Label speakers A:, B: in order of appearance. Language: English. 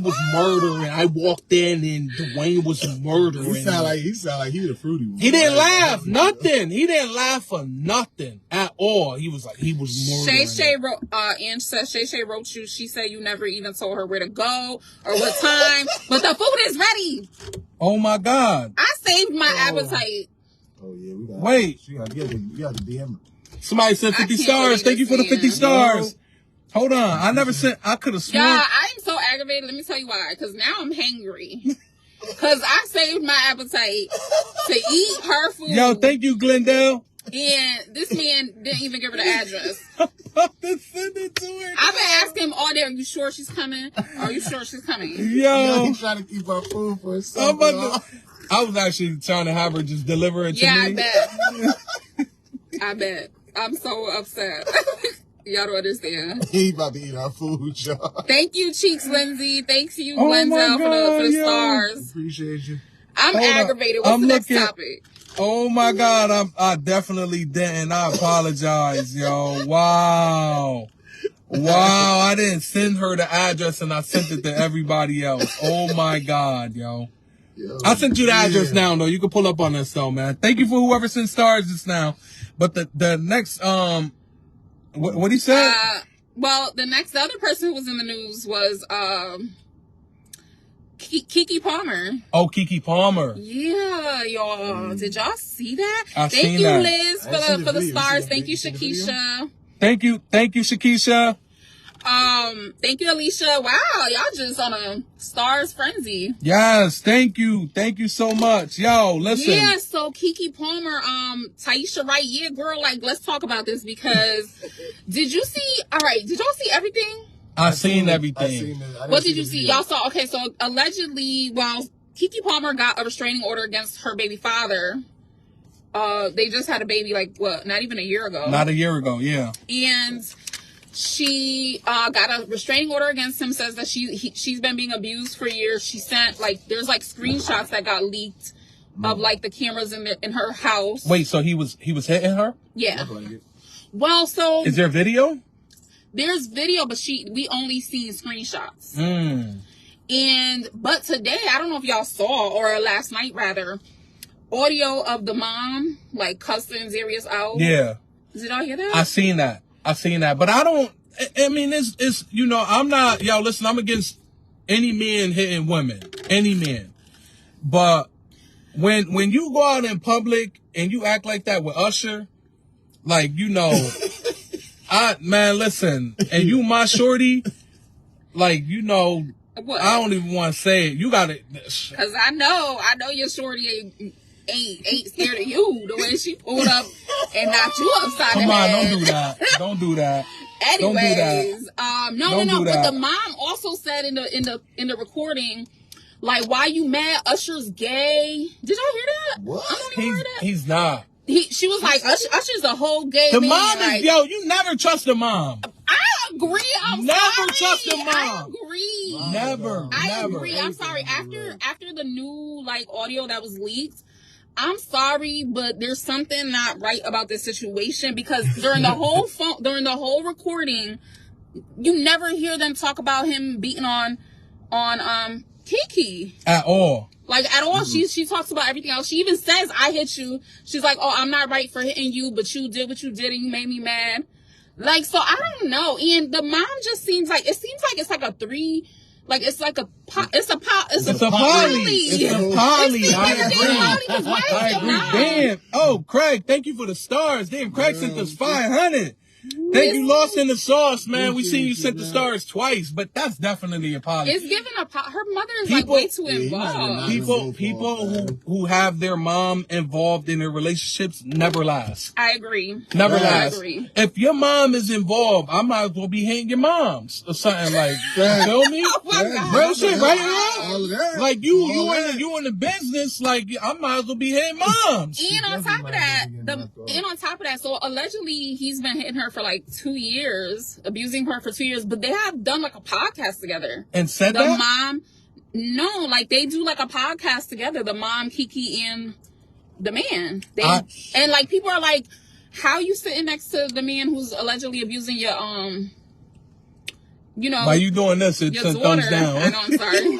A: was murdering. I walked in and Dwayne was
B: He
A: murdering.
B: sound like he sound like he the fruity one.
A: He didn't laugh,
B: Like,
A: nothing. He didn't laugh for nothing at all. He was like, he was
C: Shay
A: murdering.
C: Shay
A: it.
C: wrote, uh, Ange says Shay Shay wrote you. She said you never even told her where to go or what time, but the food is ready.
A: Oh my God.
C: I saved my
B: Oh.
C: appetite.
B: Oh yeah, we got.
A: Wait.
B: she got, you got, to, you got to DM her.
A: Somebody said
C: I
A: 50
C: can't
A: stars.
C: believe
A: Thank you
C: this
A: for the 50
C: man.
A: stars. Hold on. I never sent, I could have
C: Y'all,
A: sworn.
C: I am so aggravated. Let me tell you why. Because now I'm hangry. Because I saved my appetite to eat her food.
A: Yo, thank you, Glendale.
C: And this man didn't even give her the address.
A: Then send it to her.
C: I've been asking him all day, are you sure she's coming? Are you sure she's coming?
B: Oh.
A: Yo,
B: He trying to keep our food for
A: Uh, I'm
B: himself.
A: about to, I was actually trying to have her just deliver it to
C: Yeah, I
A: me.
C: bet. I bet. I'm so upset. Y'all don't understand.
B: he about to eat our food, y'all.
C: Thank you, Cheeks Lindsay. Thanks you,
A: Oh my
C: Lenzel, for the, for
A: God,
C: the
A: yo.
C: stars.
B: Appreciate you.
C: I'm
A: Hold up.
C: aggravated. What's
A: I'm
C: the next
A: looking-
C: topic?
A: Oh my God, I'm, I definitely didn't. I apologize, yo. Wow. Wow, I didn't send her the address and I sent it to everybody else. Oh my God, yo.
B: Yo,
A: I sent you the address
B: yeah.
A: now, though. You can pull up on us, though, man. Thank you for whoever sent stars just now. But the, the next, um, what, what he said?
C: Uh, well, the next the other person who was in the news was um, Ki- Kiki Palmer.
A: oh, Kiki Palmer.
C: Yeah, y'all. Did y'all see that?
A: Mm. I
C: Thank
A: seen
C: you,
A: that.
C: Liz,
B: I seen
C: for the
B: the
C: for the
B: video. You
C: stars.
B: seen the
C: Thank you,
B: video? You seen the
C: Shakisha.
A: Thank you. Thank you, Shakisha.
C: Um, thank you, Alicia. Wow, y'all just on a stars frenzy.
A: Yes. Thank you. Thank you so much. Yo, listen.
C: Yeah, so Kiki Palmer, um, Taisha Wright, yeah, girl, like let's talk about this because did you see all right, did y'all see everything?
A: I seen
B: it.
A: everything.
B: I seen it. I didn't
C: What did
B: the
C: you see?
B: video.
C: Y'all saw okay, so allegedly while Kiki Palmer got a restraining order against her baby father, uh, they just had a baby like what, not even a year ago.
A: Not a year ago. Yeah.
C: and she uh, got a restraining order against him. Says that she he, she's been being abused for years. She sent like there's like screenshots that got leaked of like the cameras in the, in her house.
A: Wait. So he was he was hitting her?
C: Yeah.
B: Look like it.
C: Well, so
A: Is there video?
C: there's video, but she we only seen screenshots.
A: Mm.
C: And but today, I don't know if y'all saw or last night rather, audio of the mom like cussing Zarius out.
A: Yeah.
C: Did y'all hear that?
A: I seen that. I seen that. But I don't. I, I mean, it's it's you know I'm not yo. Listen, I'm against any men hitting women. Any men. But when when you go out in public and you act like that with Usher, like you know. I man, listen, and you my shorty, like you know,
C: what?
A: I don't even want to say it. You got it.
C: Cause I know, I know your shorty ain't ain't, ain't scared of you the way she pulled up and knocked you upside
A: Come
C: the
A: on,
C: head.
A: don't do that. Don't do that. Don't do that.
C: Anyways, um, no,
A: Don't
C: no,
A: do
C: no. But
A: that.
C: the mom also said in the in the in the recording, like, why you mad? Usher's gay. Did y'all hear that?
B: What?
C: I don't even
A: He's
C: hear that.
A: he's not.
C: He, she was like, Usher, Usher's a whole gay.
A: The
C: man.
A: mom
C: like,
A: is yo. You never trust the mom.
C: I agree. I'm
A: Never
C: sorry.
A: trust the
C: I
A: mom.
C: agree.
B: Mom.
A: Never,
C: I
A: never.
C: agree. I'm sorry. After after the new like audio that was leaked, I'm sorry, but there's something not right about this situation because during the whole phone during the whole recording, you never hear them talk about him beating on on um Kiki.
A: At all.
C: Like at all,
A: Mm-hmm.
C: she she talks about everything else. She even says, "I hit you." She's like, "Oh, I'm not right for hitting you, but you did what you did, and you made me mad." Like so, I don't know. And the mom just seems like it seems like it's like a three, like it's like a po- it's a po- it's,
A: It's
C: a,
A: a poly. It's a poly.
C: It's the
A: I
C: biggest
A: agree.
C: poly was
A: I
C: right,
A: agree.
C: the mom.
A: Damn. Oh, Craig, thank you for the stars. Damn, Craig sent us 500. Thank you, Lost in the Sauce, man. We seen you sent the stars twice, but that's definitely a poly.
C: It's giving a po- her mother is like
A: People-
C: way too
B: Yeah, you might as well
C: involved.
B: not.
A: people people who, who have their mom involved in their relationships never last.
C: I agree.
A: Never
B: Yes.
C: I
A: last.
C: agree.
A: If your mom is involved, I might as well be hitting your moms or something like that. Feel me?
C: Oh my God.
A: Real shit, right?
B: All of that.
A: Like you
B: All
A: you in
B: that.
A: you in the business, like I might as well be hitting moms.
C: And on
B: does
C: top of
B: remind
C: that,
B: me of
C: the,
B: Knocked Off.
C: and on top of that, so allegedly he's been hitting her for like two years, abusing her for two years. But they have done like a podcast together.
A: And said
C: The
A: that?
C: mom, no, like they do like a podcast together. The mom, Kiki, and the man. They
A: I-
C: and like people are like, how you sitting next to the man who's allegedly abusing your um you know,
A: By you doing this, it
C: your
A: took
C: daughter.
A: thumbs down.
C: I know. I'm sorry.